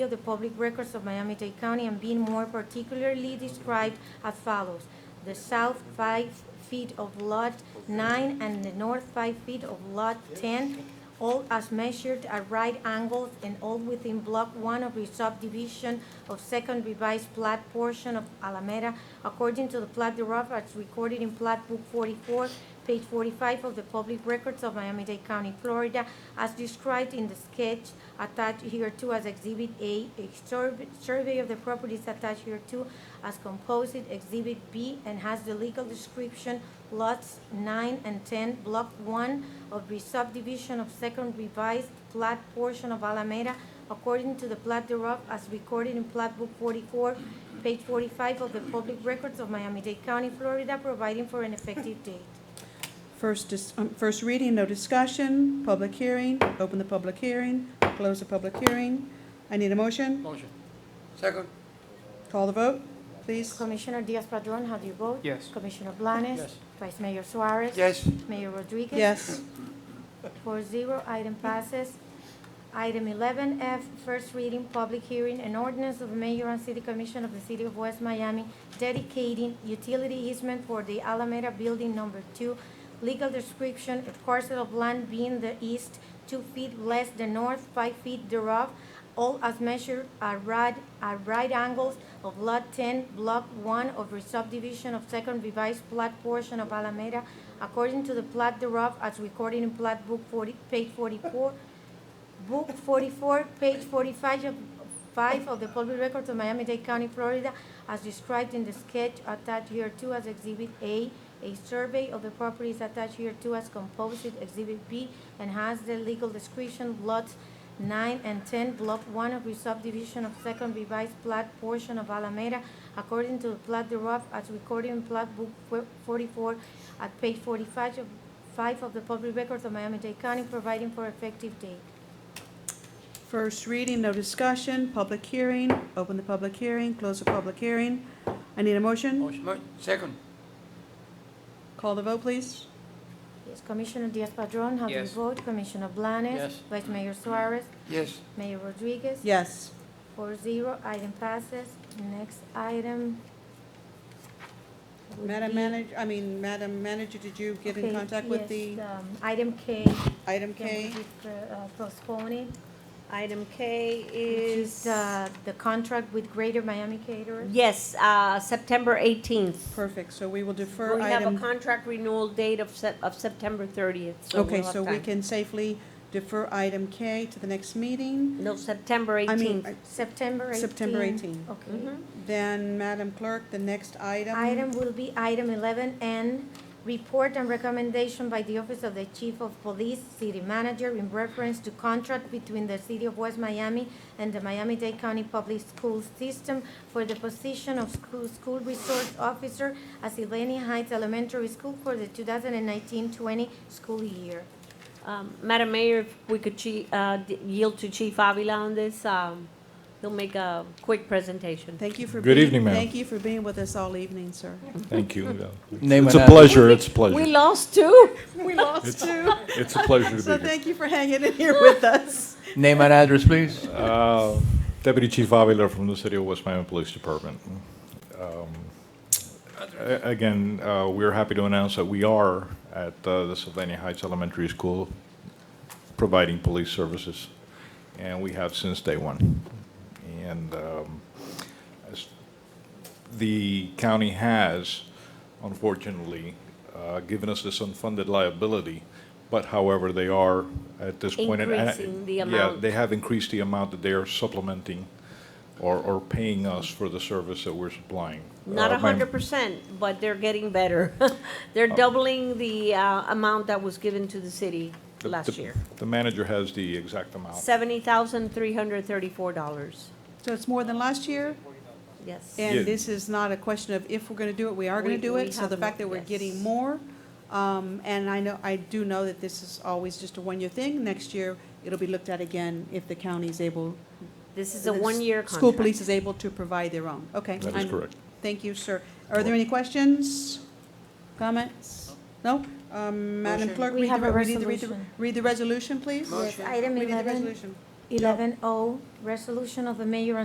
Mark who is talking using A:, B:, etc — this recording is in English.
A: of the public records of Miami-Dade County and being more particularly described as follows. The south five feet of lot nine and the north five feet of lot ten, all as measured at right angles and all within block one of the subdivision of second revised plat portion of Alameda according to the plat thereof as recorded in plat book forty-four, page forty-five of the public records of Miami-Dade County, Florida, as described in the sketch attached hereto as Exhibit A, a survey, survey of the properties attached hereto as composite Exhibit B, and has the legal description lots nine and ten, block one of the subdivision of second revised plat portion of Alameda according to the plat thereof as recorded in plat book forty-four, page forty-five of the public records of Miami-Dade County, Florida, providing for an effective date.
B: First, dis- um, first reading, no discussion, public hearing, open the public hearing, close the public hearing. I need a motion.
C: Motion.
D: Second,
B: Call the vote, please.
A: Commissioner Diaz-Padrón, how do you vote?
C: Yes.
A: Commissioner Blanes?
C: Yes.
A: Vice Mayor Suarez?
D: yes.
A: Mayor Rodriguez?
B: Yes.
A: Four zero, item passes. Item eleven F, first reading, public hearing, an ordinance of the Mayor and City Commission of the City of West Miami dedicating utility easement for the Alameda Building Number Two. Legal description, a parcel of land being the east, two feet less the north, five feet thereof, all as measured at right, at right angles of Lot 10, Block 1 of the subdivision of Second Revised Plat portion of Alameda, according to the plat thereof as recorded in Plat Book 40, page 44, Book 44, page 45 of, 5 of the Public Records of Miami-Dade County, Florida, as described in the sketch attached here to as Exhibit A, a survey of the properties attached here to as composite Exhibit B, and has the legal description, lots 9 and 10, Block 1 of the subdivision of Second Revised Plat portion of Alameda, according to the plat thereof as recorded in Plat Book 44 at page 45 of 5 of the Public Records of Miami-Dade County, providing for effective date.
B: First reading, no discussion, public hearing, open the public hearing, close the public hearing. I need a motion.
D: Mo- Second,
B: Call the vote, please.
A: Yes, Commissioner Diaz-Padrón, how do you
C: Yes.
A: vote? Commissioner Blanes?
C: Yes.
A: Vice Mayor Suarez?
D: yes.
A: Mayor Rodriguez?
B: Yes.
A: Four zero, item passes. Next item. would
B: Madam
A: be-
B: Manager, I mean, Madam Manager, did you get in
A: Okay,
B: contact with the
A: yes, um, Item K.
E: uh,
B: item
A: can
B: K?
A: we pre- uh, Postpone it.
E: Item K
A: which
E: is,
A: The,
E: uh,
A: uh, the contract with Greater Miami Caterers.
E: yes, uh, September 18th.
B: Perfect, so we will defer
E: We have a
B: item,
E: contract renewal date of Sep- of September 30th, so
B: okay,
E: we'll have
B: so we
E: time.
B: can safely defer item K to the next meeting.
E: No, September
B: I mean,
E: 18th.
A: September 18.
B: September 18.
A: Okay.
E: Mhm.
B: Then, Madam Clerk, the next item.
A: Item will be item eleven N, report and recommendation by the Office of the Chief of Police, City Manager in reference to contract between the City of West Miami and the Miami-Dade County Public Schools System for the position of school, school resource officer at Sylvania Heights Elementary School for the 2019-20 school year.
E: Um, Madam Mayor, if we could chi- uh, d- yield to Chief Avila on this, um, he'll make a quick presentation.
B: Thank you for being.
F: Good evening, ma'am.
B: Thank you for being with us all evening, sir.
F: Thank you.
C: Name
F: It's
C: and
F: a
C: address.
F: pleasure, it's a
E: We
F: pleasure. Uh,
E: lost two.
B: We lost two,
F: It's a pleasure to
B: so
F: be here.
B: thank you for hanging in here with us.
C: Name and address, please.
F: Uh, Deputy Chief Avila from the City of West Miami Police Department. Um, a- Again, uh, we're happy to announce that we are at uh, the Sylvania Heights Elementary School providing police services, and we have since day one. And um, as the county has, unfortunately, uh, given us this unfunded liability, but however, they are at this point. and- and-
E: Increasing the
F: Yeah,
E: amount.
F: they have increased the amount that they are supplementing or, or paying us for the service that we're supplying.
E: Not a
F: Uh, ma'am,
E: hundred percent, but they're getting better. They're doubling the, uh, amount that was given to the city
F: the-
E: last
F: the-
E: year.
F: The manager has the exact amount.
E: $70,334,
B: So it's more than last year,
E: yes.
F: Yeah.
B: and this is not a question of if we're gonna do it, we are gonna
E: We-
B: do
E: we
B: it. So
E: have
B: the
E: more,
B: fact that we're
E: yes.
B: getting more, um, and I know, I do know that this is always just a one-year thing. Next year, it'll be looked at again if the county is able
E: This is a
B: the s-
E: one-year contract.
B: School police is able to provide their own, okay.
F: That is
B: I'm-
F: correct.
B: Thank you, sir. Are there any questions, comments? No? Um, Madam
D: Motion.
B: Clerk,
A: We
B: read the,
A: have a
B: re- read the- read the,
A: resolution.
B: read the resolution, please?
D: Motion.
A: Item
B: Read the
A: eleven.
B: resolution.
A: eleven O, resolution of the mayor and